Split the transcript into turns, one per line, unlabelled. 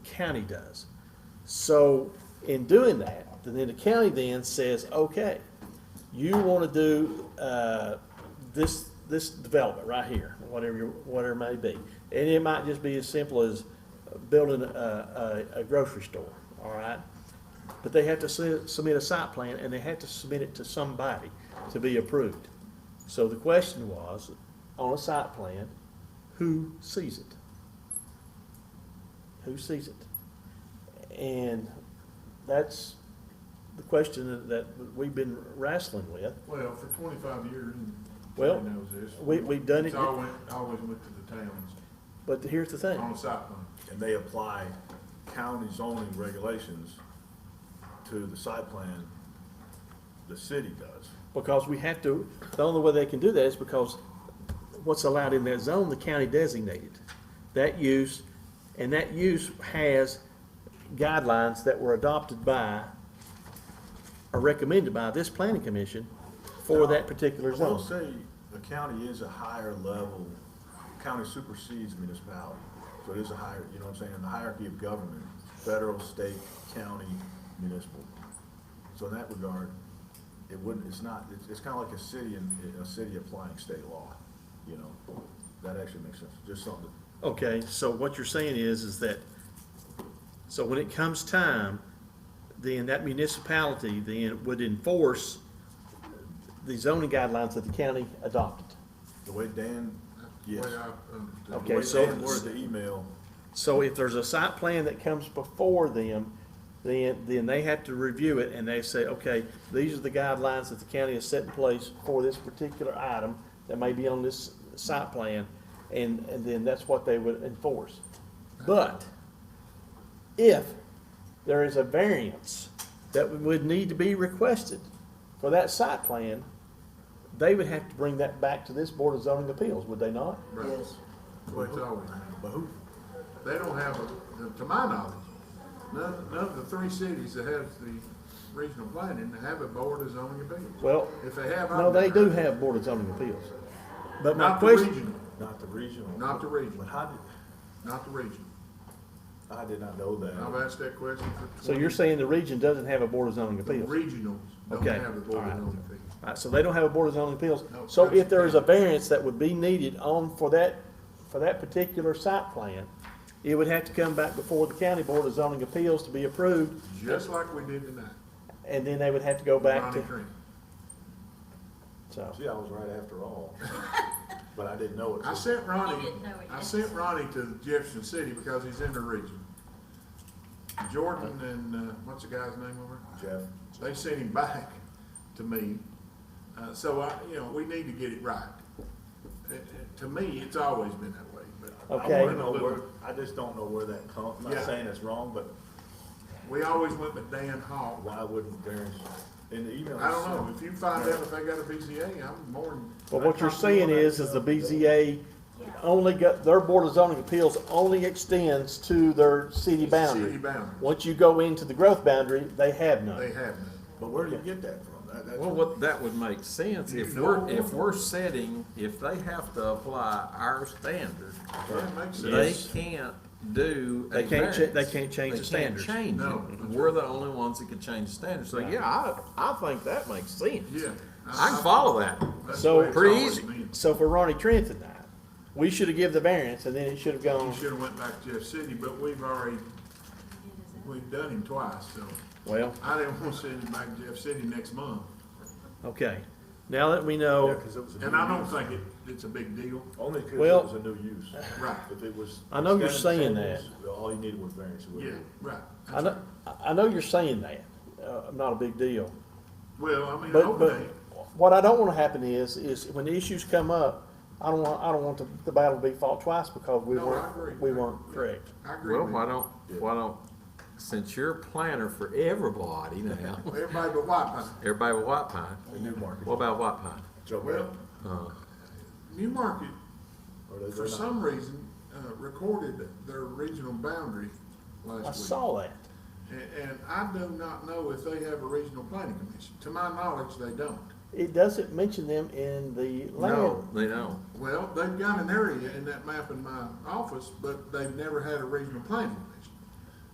county does. So in doing that, then the county then says, okay, you wanna do, uh, this, this development right here, whatever your, whatever it may be. And it might just be as simple as building a, a, a grocery store, all right? But they have to su- submit a site plan and they have to submit it to somebody to be approved. So the question was, on a site plan, who sees it? Who sees it? And that's the question that- that we've been wrestling with.
Well, for twenty-five years, and
Well,
Terry knows this.
we- we've done
It's
it-
always, always went to the towns
But here's the thing.
on the site plan.
And they apply county zoning regulations to the site plan the city does.
Because we have to, the only way they can do that is because what's allowed in that zone, the county designated. That use, and that use has guidelines that were adopted by, or recommended by this planning commission for that particular
I will
zone.
say, the county is a higher level, county supersedes municipality, so it is a higher, you know what I'm saying, the hierarchy of government, federal, state, county, municipal. So in that regard, it wouldn't, it's not, it's, it's kinda like a city and, a city applying state law, you know? That actually makes sense, just something,
Okay, so what you're saying is, is that, so when it comes time, then that municipality then would enforce the zoning guidelines that the county adopted.
the way Dan, yes.
That's the way I understood it.
Okay,
The
so-
way Dan worded the email,
So if there's a site plan that comes before them, then, then they have to review it and they say, okay, these are the guidelines that the county has set in place for this particular item that may be on this site plan, and, and then that's what they would enforce. But if there is a variance that would need to be requested for that site plan, they would have to bring that back to this Board of Zoning Appeals, would they not?
Right.
Yes.
Well, it's always,
but who,
they don't have, a- to my knowledge, none, none of the three cities that has the regional planning have a board of zoning appeals.
Well,
If they have.
No,
I'm
they do
there.
have Board of Zoning Appeals. But my
Not the
question,
regional,
not the regional.
Not the regional.
But how did,
not the regional.
I did not know that.
I've asked that question for twenty.
so you're saying the region doesn't have a Board of Zoning
The
Appeals?
regionals don't
Okay,
have a board of
alright.
zoning appeals.
All right, so they don't have a Board of Zoning Appeals.
No.
So if there is a variance that would be needed on, for that, for that particular site plan, it would have to come back before the County Board of Zoning Appeals to be approved,
Just like we did tonight.
and then they would have to go back
Ronnie
to,
Crane.
so.
See, I was right after all, but I didn't know it.
I sent Ronnie,
didn't know it
I
yet.
sent Ronnie to Jefferson City because he's in the region. Jordan and, uh, what's the guy's name over?
Jeff,
They sent him back to me. Uh, so I, you know, we need to get it right. Uh, uh, To me, it's always been that way,
I
but
Okay.
wanna know where, I just don't know where that comes, I'm
Yeah.
not saying it's wrong, but
we always went with Dan Hall.
why wouldn't variance? In the email.
I don't know, if you find out if they got a BCA, I'm more than.
But what you're saying is, is the BZA only got, their Board of Zoning Appeals only extends to their city boundary.
City boundary,
Once you go into the growth boundary, they have none.
they have none.
But where do you get that from? That, that's.
Well, what, that would make sense if
You know.
we're, if we're setting, if they have to apply our standard,
That makes
they
sense.
can't do a
They can't
variance.
cha- they can't change the
They can't
standards.
change it.
No.
We're the only ones that can change the standards. So, yeah, I, I think that makes sense.
Yeah.
I can follow that.
That's
So-
the way it's
Pretty
always
easy.
been.
So for Ronnie Trent tonight, we should have give the variance and then it should have
We
gone,
should have went back to Jeff City, but we've already, we've done him twice, so
well,
I didn't want to send him back to Jeff City next month.
okay. Now that we
Yeah,
know,
'cause it was a
And
new
I don't
use.
think it, it's a big deal.
Only because it
Well-
was a new use.
Right,
If it was.
I know you're saying
standard, All you needed was variance. it
yeah,
would've-
right.
I know, I know you're saying that, uh, not a big deal.
Well, I mean,
But, but
hopefully,
what I don't wanna happen is, is when the issues come up, I don't want, I don't want the, the battle to be fought twice because we
No, I agree.
weren't, we weren't correct.
I agree
Well,
with
why
you.
don't, why don't, since you're a planner for everybody now,
Everybody but White Pine.
everybody with White Pine,
The new market.
what about White Pine?
Joe
Well,
Uh-huh.
Newmarket, for some reason, uh, recorded their regional boundary last week.
I saw that.
And, and I do not know if they have a regional planning commission. To my knowledge, they don't.
It doesn't mention them in the
No,
land.
they don't.
Well, they've got an area in that map in my office, but they've never had a regional planning commission.